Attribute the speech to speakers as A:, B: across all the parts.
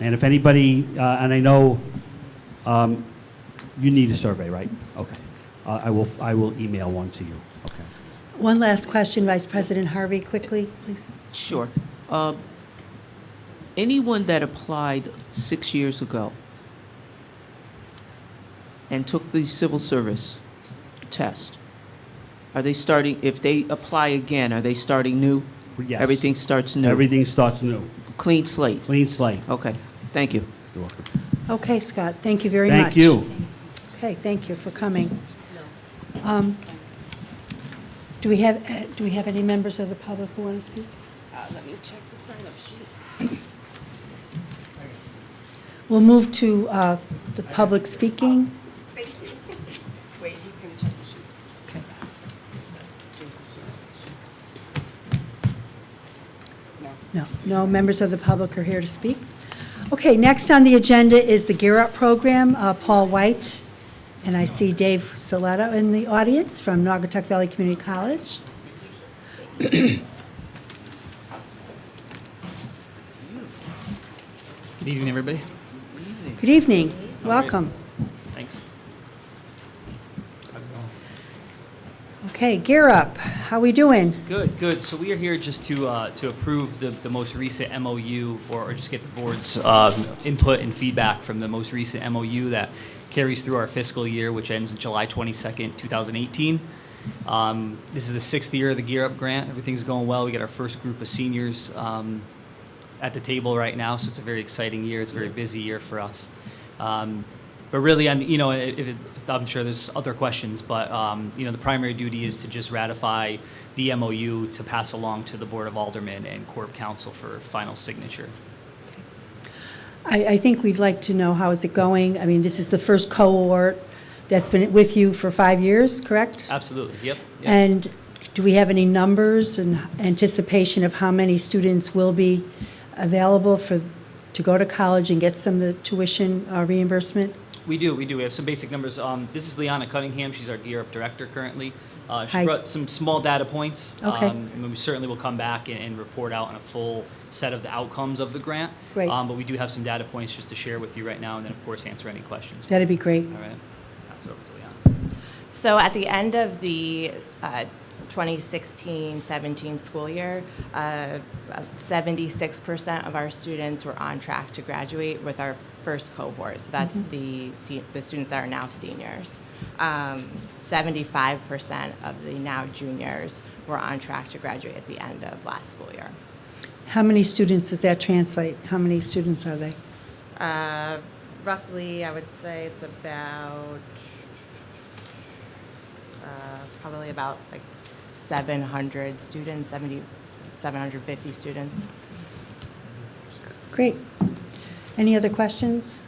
A: And if anybody, uh, and I know um, you need a survey, right? Okay. Uh, I will, I will email one to you. Okay.
B: One last question, Vice President Harvey, quickly, please.
C: Sure. Uh, Anyone that applied six years ago and took the civil service test, are they starting, if they apply again, are they starting new?
A: Yes.
C: Everything starts new?
A: Everything starts new.
C: Clean slate?
A: Clean slate.
C: Okay, thank you.
B: Okay, Scott, thank you very much.
A: Thank you.
B: Okay, thank you for coming. Um, Do we have, uh, do we have any members of the public who want to speak?
D: Uh, Let me check the sign-up sheet.
B: We'll move to uh, the public speaking.
D: Thank you. Wait, he's gonna check the sheet.
B: Okay.
D: Jason's gonna. No.
B: No, no members of the public are here to speak. Okay, next on the agenda is the Gear Up Program, Uh, Paul White, and I see Dave Saleto in the audience from Naugatuck Valley Community College.
E: Good evening, everybody.
B: Good evening, welcome.
E: Thanks. How's it going?
B: Okay, Gear Up, how we doing?
E: Good, good. So we are here just to, uh, to approve the, the most recent MOU, or, or just get the board's, um, input and feedback from the most recent MOU that carries through our fiscal year, which ends July twenty-second, two thousand eighteen. Um, this is the sixth year of the Gear Up Grant. Everything's going well. We got our first group of seniors, um, at the table right now, so it's a very exciting year. It's a very busy year for us. Um, but really, and you know, if it, I'm sure there's other questions, but um, you know, the primary duty is to just ratify the MOU to pass along to the Board of Aldermen and Corp Council for final signature.
B: I, I think we'd like to know how is it going? I mean, this is the first cohort that's been with you for five years, correct?
E: Absolutely. Yep. yep.
B: And do we have any numbers and anticipation of how many students will be available for, to go to college and get some of the tuition uh, reimbursement?
E: We do, we do. We have some basic numbers. Um, this is Liana Cunningham. She's our Gear Up Director currently. Uh, she
B: Hi.
E: brought some small data points.
B: Okay.
E: Um, and we certainly will come back and, and report out on a full set of the outcomes of the grant.
B: Great.
E: Um, but we do have some data points just to share with you right now, and then of course answer any questions.
B: That'd be great.
E: All right. Pass it over to Liana.
F: So at the end of the uh, 2016-17 school year, uh, 76% of our students were on track to graduate with our first cohort. So that's
D: Mm-hmm.
F: the se- the students that are now seniors. Um, 75% of the now juniors were on track to graduate at the end of last school year.
B: How many students does that translate? How many students are they?
F: Uh, Roughly, I would say it's about, uh, probably about like 700 students, 70, 750 students.
B: Great. Any other questions?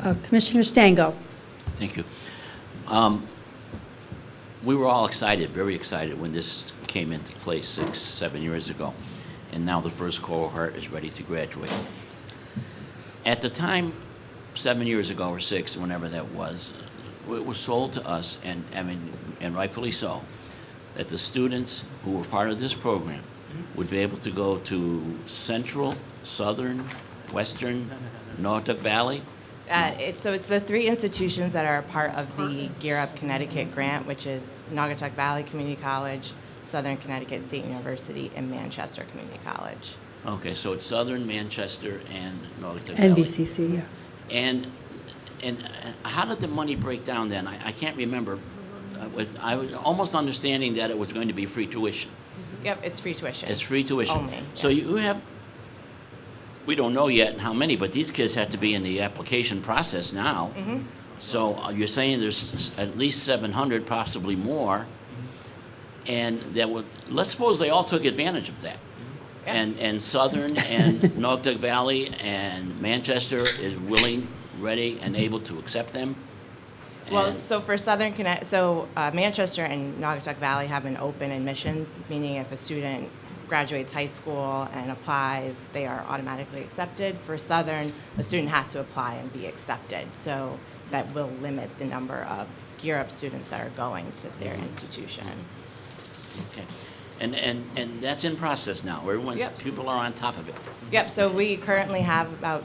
B: Uh, Commissioner Stango?
G: Thank you. Um, We were all excited, very excited, when this came into place six, seven years ago, and now the first cohort is ready to graduate. At the time, seven years ago or six, whenever that was, it was sold to us, and I mean, and rightfully so, that the students who were part of this program would be able to go to Central, Southern, Western, Norfolk Valley,
F: Uh, it's, so it's the three institutions that are a part of the Gear Up Connecticut grant, which is Naugatuck Valley Community College, Southern Connecticut State University, and Manchester Community College.
G: Okay, so it's Southern Manchester and Nordic Valley.
B: NBCC, yeah.
G: And, and uh, how did the money break down then? I, I can't remember. I was- I was almost understanding that it was going to be free tuition.
F: Yep, it's free tuition.
G: It's free tuition.
F: Only,
G: So
F: yeah.
G: you have, we don't know yet how many, but these kids have to be in the application process now.
F: Mm-hmm.
G: So uh, you're saying there's s- at least 700, possibly more, and that would, let's suppose they all took advantage of that.
F: Yeah.
G: And, and Southern and Naugatuck Valley and Manchester is willing, ready, and able to accept them?
F: Well,
G: And-
F: so for Southern Connect, so uh, Manchester and Naugatuck Valley have an open admissions, meaning if a student graduates high school and applies, they are automatically accepted. For Southern, a student has to apply and be accepted. So that will limit the number of Gear Up students that are going to their institution.
G: Okay. And, and, and that's in process now. Everyone's,
F: Yep.
G: people are on top of it.
F: Yep, so we currently have about